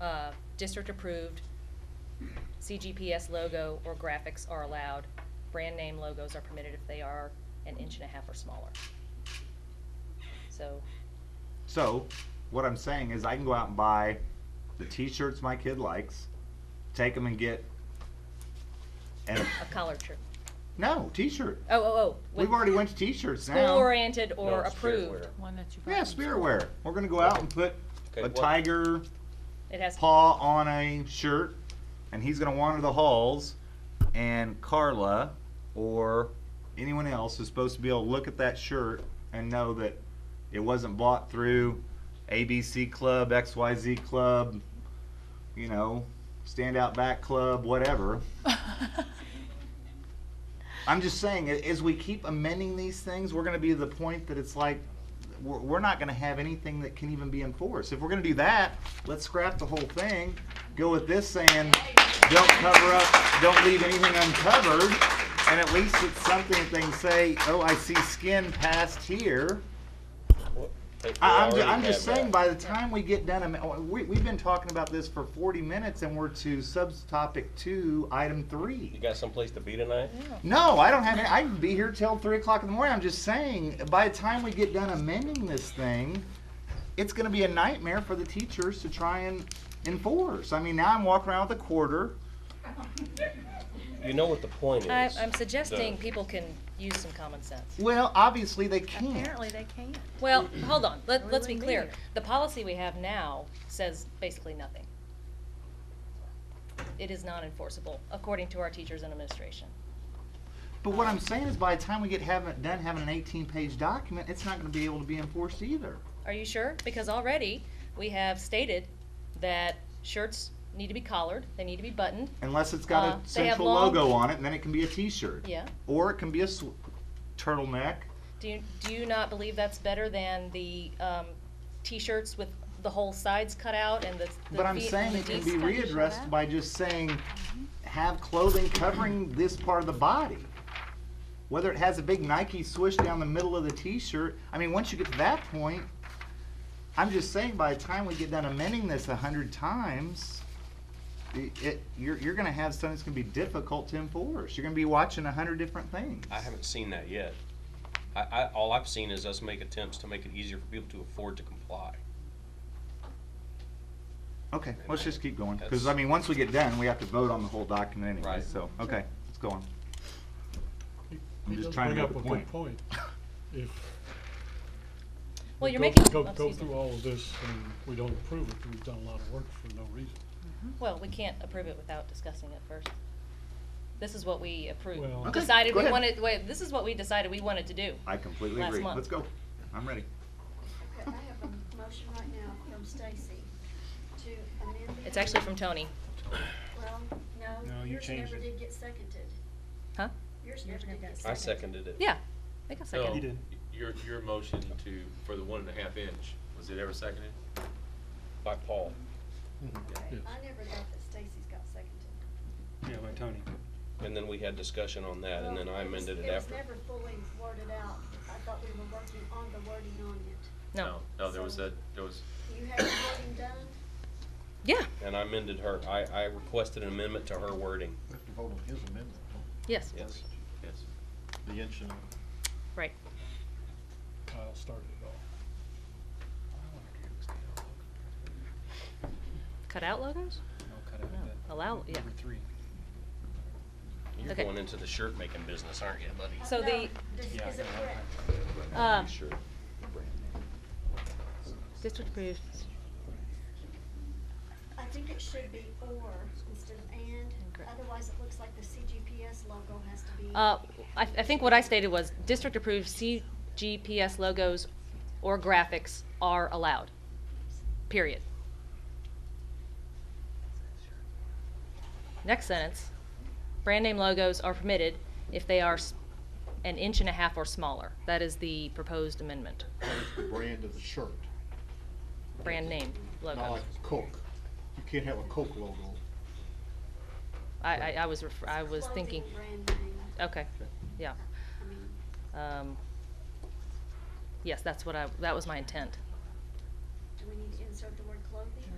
uh, district-approved CGPS logo or graphics are allowed. Brand name logos are permitted if they are an inch and a half or smaller. So, So, what I'm saying is I can go out and buy the t-shirts my kid likes, take them and get, and, a collared shirt. no, t-shirt. Oh, oh, oh. with We've already went to t-shirts now. School-oriented or it's fair approved. wear. One that you. bought Yeah, from spirit wear. We're gonna go out and put Okay, a what- tiger It has, paw on a shirt, and he's gonna wander the halls, and Carla or anyone else is supposed to be able to look at that shirt and know that it wasn't bought through ABC Club, XYZ Club, you know, Stand Out Back Club, whatever. I'm just saying, a- as we keep amending these things, we're gonna be to the point that it's like, we're, we're not gonna have anything that can even be enforced. If we're gonna do that, let's scrap the whole thing, go with this saying, don't cover up, don't leave anything uncovered, and at least it's something that they can say, oh, I see skin past here. What- they- they I, I'm, ju- already I'm just have saying, that. by the time we get done, am- we, we've been talking about this for forty minutes and we're to subtopic two, item three. You got someplace to be tonight? No, I don't have any. I can be here till three o'clock in the morning. I'm just saying, by the time we get done amending this thing, it's going to be a nightmare for the teachers to try and enforce. I mean, now I'm walking around with a quarter. You know what the point is. I, I'm suggesting The- people can use some common sense. Well, obviously they can't. Apparently they can't. Well, hold on, let, We let's be wouldn't be clear. here. The policy we have now says basically nothing. It is not enforceable, according to our teachers and administration. But what I'm saying is, by the time we get having, done having an 18-page document, it's not going to be able to be enforced either. Are you sure? Because already, we have stated that shirts need to be collared, they need to be buttoned, Unless it's got Uh, a they have central long- logo on it, and then it can be a T-shirt. yeah. Or it can be a sw- turtleneck. Do you, do you not believe that's better than the, um, t-shirts with the whole sides cut out and the, the But I'm feet- saying the it can Ds be cut? readdressed by just saying, have clothing covering this part of the body. Whether it has a big Nike swoosh down the middle of the t-shirt, I mean, once you get to that point, I'm just saying by the time we get done amending this a hundred times, i- it, you're, you're gonna have something that's gonna be difficult to enforce. You're gonna be watching a hundred different things. I haven't seen that yet. I, I, all I've seen is us make attempts to make it easier for people to afford to comply. Okay, let's just keep going, cause That's- I mean, once we get done, we have to vote on the whole document anyway, Right. so, okay, let's go on. I'm He just does trying to bring make up a good point. If Well, we you're go- making, Go, oh, go excuse me. through all of this and we don't approve it, we've done a lot of work for no reason. Well, we can't approve it without discussing it first. This is what we Well- approved, Okay, decided go we ahead. wanted, wait, this is what we decided we wanted to do. I completely Last agree. month. Let's go. I'm ready. Okay, I have a motion right now from Stacy to amend the. It's actually from Tony, Well, no, yours never did get seconded. huh? Yours never did get seconded. I seconded it. Yeah, I guess I So, can. your, your motion to, for the one and a half inch, was it ever seconded? By Paul. Okay, Yes. I never got that Stacy's got seconded. And then we had discussion on that and then Well, I was- amended it It was after. never fully worded out. I thought we were working on the wording on it. No, No, there was a, there was, You have the wording done? yeah, And I amended her, I, I requested an amendment to her wording. We have to vote on his amendment, yes, Yes. yes. the inch and. right. Kyle started it all. Cut out logos? No, allow, yeah. You're Okay. going into the shirt making business, aren't you, buddy? So No, the, does- Is it correct? um, Sure. District approved. I think it should be or instead of and. Correct. Otherwise, it looks like the CGPS logo has to be. Uh, I, I think what I stated was district approved CGPS logos or graphics are allowed. Period. Next sentence, brand name logos are permitted if they are s- an inch and a half or smaller. That is the proposed amendment, It's the brand of the shirt, brand name not logos. like a Coke. You can't have a Coke logo. I, I, I was, ref- I was clothing thinking, Brand name. okay, yeah. I mean, Um, yes, that's what I, that was my intent. do we need to insert the word clothing?